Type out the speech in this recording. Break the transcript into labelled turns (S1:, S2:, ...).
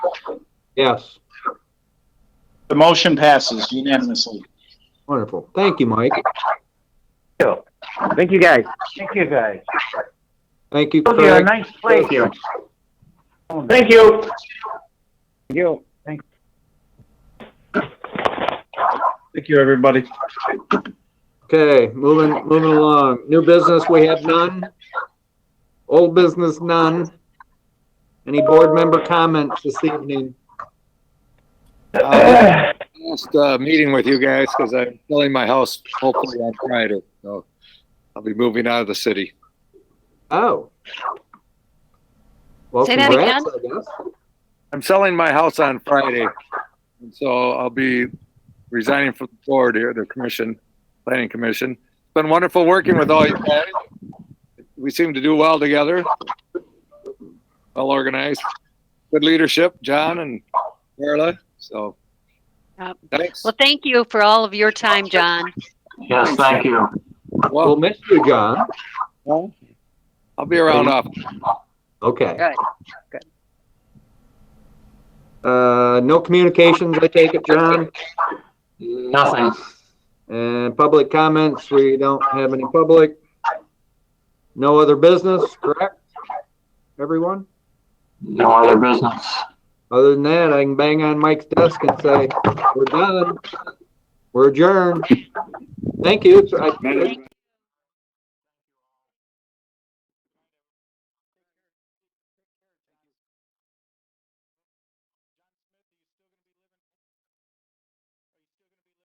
S1: Yes,
S2: The motion passes unanimously.
S1: wonderful. Thank you, Mike.
S3: Thank you, guys.
S4: Thank you, guys.
S1: Thank you,
S4: Those are a
S1: Craig.
S4: nice place. Oh,
S2: Thank you.
S4: Thank you.
S3: Thank you.
S2: Thank you, everybody.
S1: Okay, moving, moving along. New business, we have none. Old business, none. Any board member comments this evening? Uh,
S5: last uh, meeting with you guys because I'm selling my house hopefully on Friday. So I'll be moving out of the city.
S1: Oh. Well,
S6: Say that
S1: congrats, I guess.
S5: I'm selling my house on Friday. And so I'll be resigning from the board here, the commission, planning commission. It's been wonderful working with all you guys. We seem to do well together. Well organized, good leadership, John and Carla. So
S6: Yep.
S5: thanks.
S6: Well, thank you for all of your time, John.
S2: Yes, thank you.
S1: We'll
S5: Well,
S1: miss you, John.
S5: I'll be around off.
S1: Okay.
S6: Good.
S1: Uh, no communications, I take it, John?
S2: Nothing.
S1: And public comments, we don't have any public. No other business, correct? Everyone?
S2: No other business.
S1: Other than that, I can bang on Mike's desk and say, we're done. We're adjourned. Thank you. I-